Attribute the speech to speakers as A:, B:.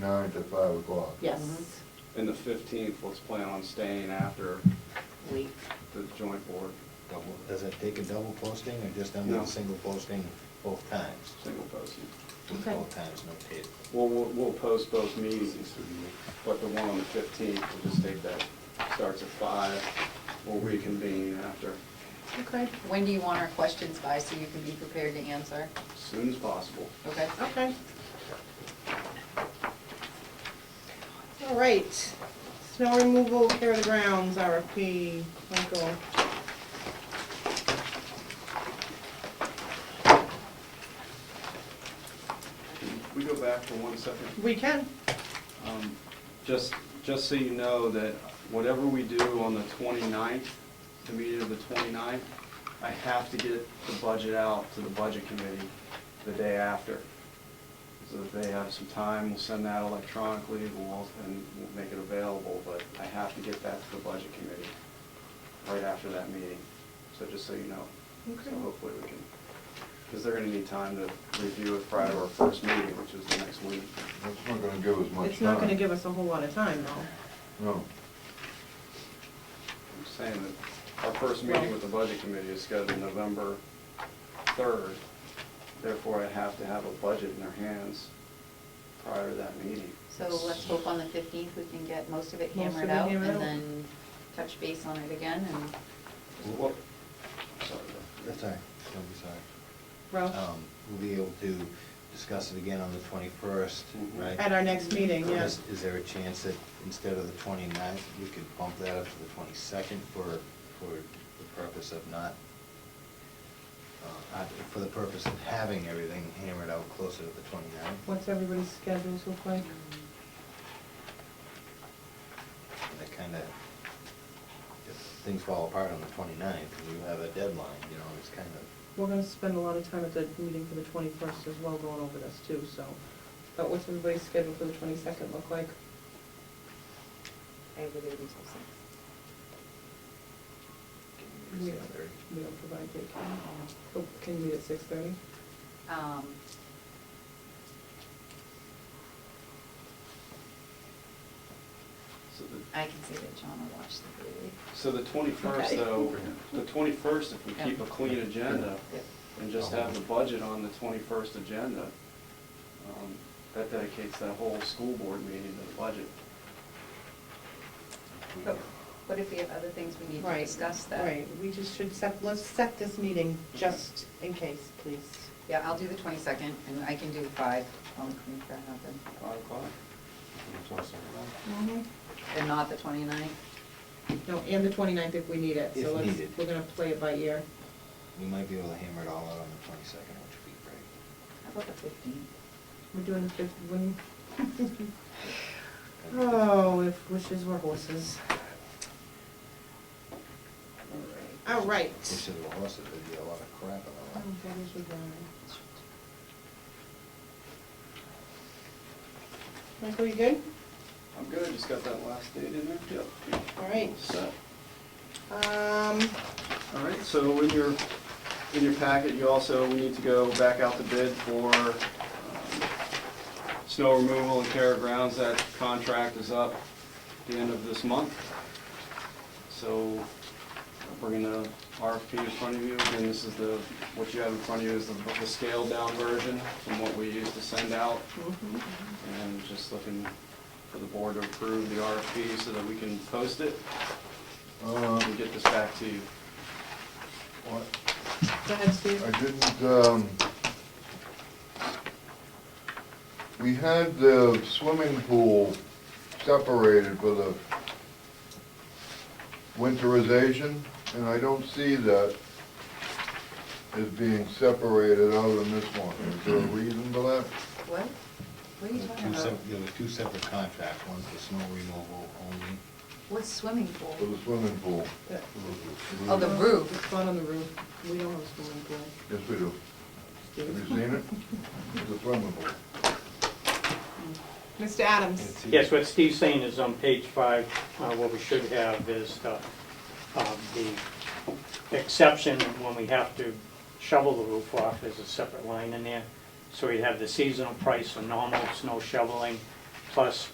A: nine to five o'clock.
B: Yes,
C: And the fifteenth, let's plan on staying after
D: Mm-hmm.
B: we,
C: the joint board
E: Double, does it take a double posting or just done with
C: No.
E: a single posting both times?
C: single posting.
E: With
B: Okay.
E: Both times, no tape.
C: We'll, we'll we'll post both meetings, but the one on the fifteenth, we'll just take that, starts at five, we'll reconvene after,
B: okay,
D: When do you want our questions by, so you can be prepared to answer?
C: as soon as possible.
D: Okay?
B: okay. All right, snow removal, care of the grounds, RFP, Michael.
C: Can we go back for one second?
B: We can,
C: Um, Just, just so you know that whatever we do on the 29th, the meeting of the 29th, I have to get the budget out to the budget committee the day after. So that they have some time, we'll send that electronically, we'll, al- and we'll make it available, but I have to get that to the budget committee right after that meeting. So just so you know. So
B: Okay.
C: hopefully we can, because they're gonna need time to review it prior to our first meeting, which is the next week.
A: That's not gonna give us much time.
B: it's not gonna give us a whole lot of time though.
A: No.
C: I'm saying that our first meeting with the budget committee is scheduled November 3rd, therefore I have to have a budget in their hands prior to that meeting.
D: So let's hope on the 15th we can get most of it
B: Most of
D: hammered
B: it
D: out
B: hammered out.
D: and then touch base on it again and,
C: Well, sorry, Bill.
E: That's all right, don't be sorry.
B: Ralph,
E: Um, We'll be able to discuss it again on the twenty-first,
C: Mhm.
E: right?
B: at our next meeting, yeah.
E: Is is there a chance that instead of the 29th, we could bump that up to the twenty-second for, for the purpose of not, uh, uh, for the purpose of having everything hammered out closer to the 29th?
B: What's everybody's schedules look like?
E: And That kind of, if things fall apart on the 29th, and you have a deadline, you know, it's kind of,
B: We're gonna spend a lot of time at the meeting for the twenty-first as well, going over this too, so. But what's everybody's schedule for the twenty-second look like?
F: I have a baby till
E: it's
B: We
E: the other-
B: we don't provide daycare. Oh, Can you meet at six thirty?
D: um,
C: So the-
D: I can see that John will watch the baby.
C: So the 21st,
D: Okay.
C: though, the 21st, if we
D: Yeah.
C: keep a clean agenda
D: Yep.
C: and just have the budget on the 21st agenda, um, that dedicates that whole school board meeting to the budget.
D: But what if we have other things we need to
F: Right,
D: discuss that?
F: Right, we just should set, let's set this meeting just in case, please.
D: Yeah, I'll do the 22nd and I can do 5. I'll make that happen.
C: 5 o'clock?
D: And not the 29th?
B: Mhm. No, and the 29th if we need it, so
E: If
B: let's,
E: needed.
B: we're gonna play it by ear.
E: We might be able to hammer it all out on the 22nd, which would be great.
D: How about the 15th?
B: We're doing the fifth, when,
E: That'd be good.
B: oh, if wishes were horses. All right.
E: Wish there were horses, there'd be a lot of crap on the
B: Oh,
E: lot.
D: Um,
B: that is a barn. Michael, you good?
C: I'm good, just got that last date in there? Yep.
B: All right.
C: Set.
B: Um,
C: All right, so in your, in your packet, you also, we need to go back out to bid for um, snow removal and care of grounds. That contract is up the end of this month. So we're gonna RFP in front of you, and this is the, what you have in front of you is the the scaled down version from what we used to send out. And just looking for the board to approve the RFP so that we can post it
A: Uh,
C: and get this back to you.
A: what-
B: go ahead, Steve.
A: I didn't, um, we had the swimming pool separated for the winterization, and I don't see that as being separated out in this one. Is there a reason for that?
D: What? What are you talking
E: Two
D: about?
E: sep- There were two separate contracts, one for snow removal only.
D: What's swimming pool?
A: For the swimming pool?
D: Oh, the roof.
B: It's not on the roof. We don't have a swimming pool.
A: Yes, we do. Have you
B: Steve.
A: seen it? It's a swimming pool.
B: Mr. Adams.
G: Yes, what Steve's saying is on page five, uh, what we should have is the, um, the exception when we have to shovel the roof off, there's a separate line in there. So we have the seasonal price for normal snow shoveling, plus